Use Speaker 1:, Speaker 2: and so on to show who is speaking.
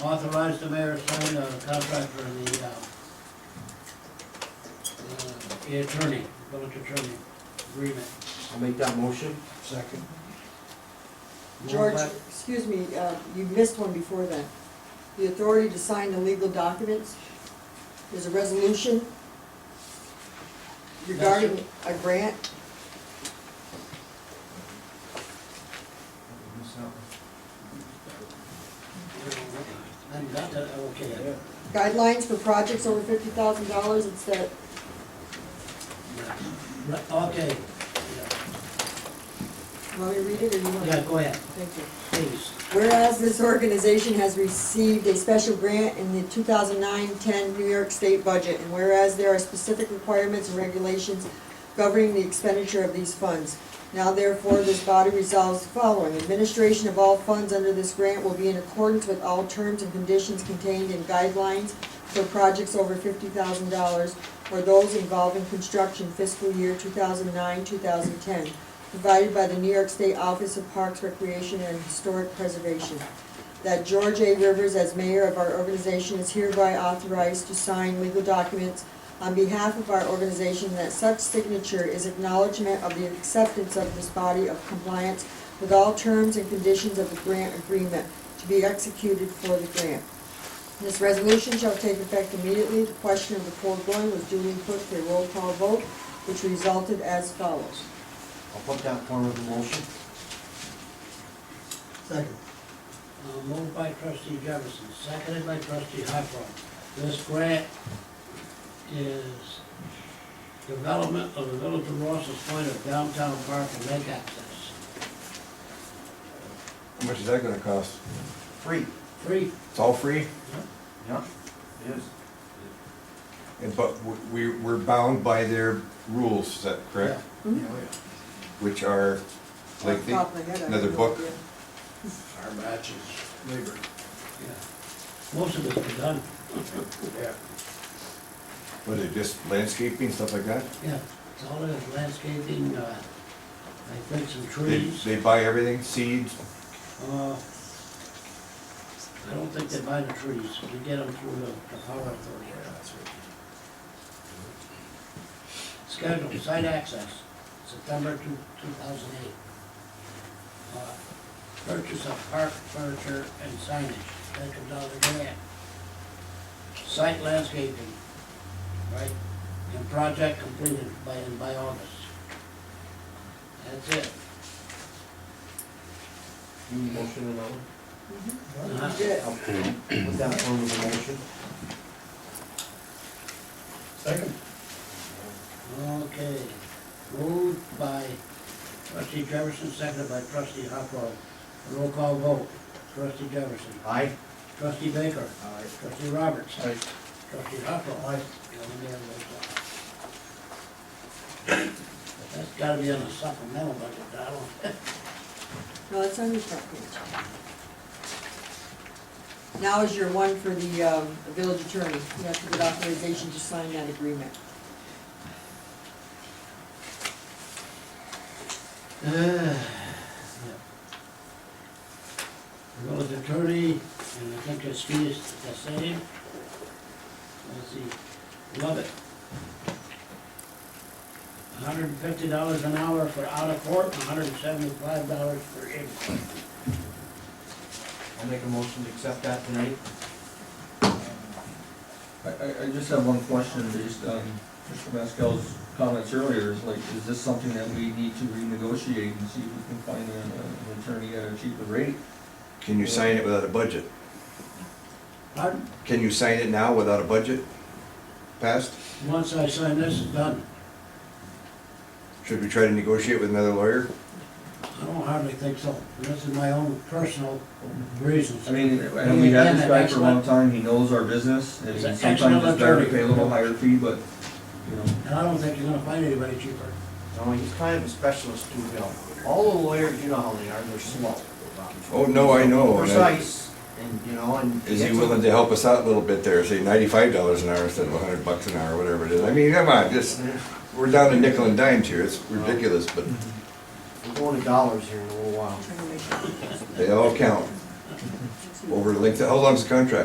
Speaker 1: Authorize the mayor to sign a contract for the, uh, uh, the attorney, village attorney agreement.
Speaker 2: I'll make that motion.
Speaker 3: Second.
Speaker 4: George,
Speaker 1: Moved
Speaker 4: excuse me, uh, you missed one before that. The authority to sign the legal documents is a resolution regarding a grant.
Speaker 1: by- And got that, okay.
Speaker 4: Guidelines for projects over fifty thousand dollars, it's that,
Speaker 1: Right, Okay,
Speaker 4: want me to read it or you want?
Speaker 1: yeah, go ahead,
Speaker 4: Thank you.
Speaker 1: please.
Speaker 4: Whereas this organization has received a special grant in the 2009-10 New York State budget, and whereas there are specific requirements and regulations governing the expenditure of these funds. Now therefore, this body resolves the following. Administration of all funds under this grant will be in accordance with all terms and conditions contained in guidelines for projects over $50,000 or those involving construction fiscal year 2009-2010 provided by the New York State Office of Parks, Recreation, and Historic Preservation. That George A. Rivers, as mayor of our organization, is hereby authorized to sign legal documents on behalf of our organization, that such signature is acknowledgement of the acceptance of this body of compliance with all terms and conditions of the grant agreement to be executed for the grant. This resolution shall take effect immediately. The question of the foregoing was duly put for a roll call vote, which resulted as follows.
Speaker 2: I'll put that form of the motion.
Speaker 3: Second.
Speaker 1: Uh, Moved by trustee Jefferson, seconded by trustee Huckrow. This grant is development of the village of Ross's Point of downtown park and lake access.
Speaker 5: How much is that gonna cost?
Speaker 2: Free.
Speaker 1: Free.
Speaker 5: It's all free,
Speaker 2: Yeah. It is.
Speaker 5: and, but we, we're bound by their rules, is that correct?
Speaker 2: Oh,
Speaker 4: Mhm.
Speaker 2: yeah.
Speaker 5: Which are, like, the-
Speaker 4: Off the top of my head, I have
Speaker 5: another
Speaker 4: no
Speaker 5: book?
Speaker 4: idea.
Speaker 3: Our matches. Labor.
Speaker 1: Yeah. Most of it's been done,
Speaker 3: Yeah.
Speaker 5: what are they, just landscaping, stuff like that?
Speaker 1: yeah. It's all in landscaping, uh, I think some
Speaker 5: They,
Speaker 1: trees.
Speaker 5: they buy everything, seeds,
Speaker 1: Uh, I don't think they buy the trees, we get them through the, the power authority. Schedule, site access, September two, two thousand eight. Uh, Purchase of park furniture and signage, that's a dollar grant. Site landscaping, right, and project completed by, by August. That's it.
Speaker 2: You motion and all?
Speaker 4: Mm-hmm.
Speaker 1: Uh-huh.
Speaker 4: Good.
Speaker 2: I'll put that form of the motion.
Speaker 3: Second.
Speaker 1: Okay, moved by trustee Jefferson, seconded by trustee Huckrow. Roll call vote, trustee Jefferson,
Speaker 2: Aye.
Speaker 1: trustee Baker,
Speaker 2: Aye.
Speaker 1: trustee Roberts,
Speaker 3: Aye.
Speaker 1: trustee Huckrow. Aye. uh, That's gotta be on the supplemental budget, Donald.
Speaker 4: No, it's on your front page. Now is your one for the um, village attorney. You have to get authorization to sign that agreement.
Speaker 1: Uh, Village attorney, and I think his fee is the same. Let's see, love it. hundred and fifty dollars an hour for out of court, and hundred and seventy-five dollars for in court.
Speaker 2: I'll make a motion to accept that tonight.
Speaker 6: I, I, I just have one question based on Mr. Maskell's comments earlier, is like, is this something that we need to renegotiate and see if we can find an, an attorney at a cheaper rate?
Speaker 5: can you sign it without a budget?
Speaker 1: Pardon?
Speaker 5: Can you sign it now without a budget passed?
Speaker 1: Once I sign this, it's done.
Speaker 5: Should we try to negotiate with another lawyer?
Speaker 1: I don't hardly think so. And This is my own personal reasons.
Speaker 6: I mean, and we had this guy for a long
Speaker 1: Excellent.
Speaker 6: time, he knows our business, and
Speaker 1: He's an
Speaker 6: sometimes
Speaker 1: excellent
Speaker 6: it's better to
Speaker 1: attorney.
Speaker 6: pay a little higher fee, but, you know.
Speaker 1: And I don't think you're gonna find anybody cheaper.
Speaker 2: No, he's kind of a specialist too, Bill. All the lawyers, you know how they are, they're slow.
Speaker 5: Oh, no, I know, and I-
Speaker 2: Precise, and, you know, and.
Speaker 5: Is he willing to help us out a little bit there, say ninety-five dollars an hour instead of hundred bucks an hour, whatever it is? I mean, come on, just, we're down to nickel and dimes here, it's ridiculous, but
Speaker 2: We're going to dollars here in a little while.
Speaker 4: Trying to make it-
Speaker 5: they all count.
Speaker 4: excuse
Speaker 5: over the length, how long's the contract?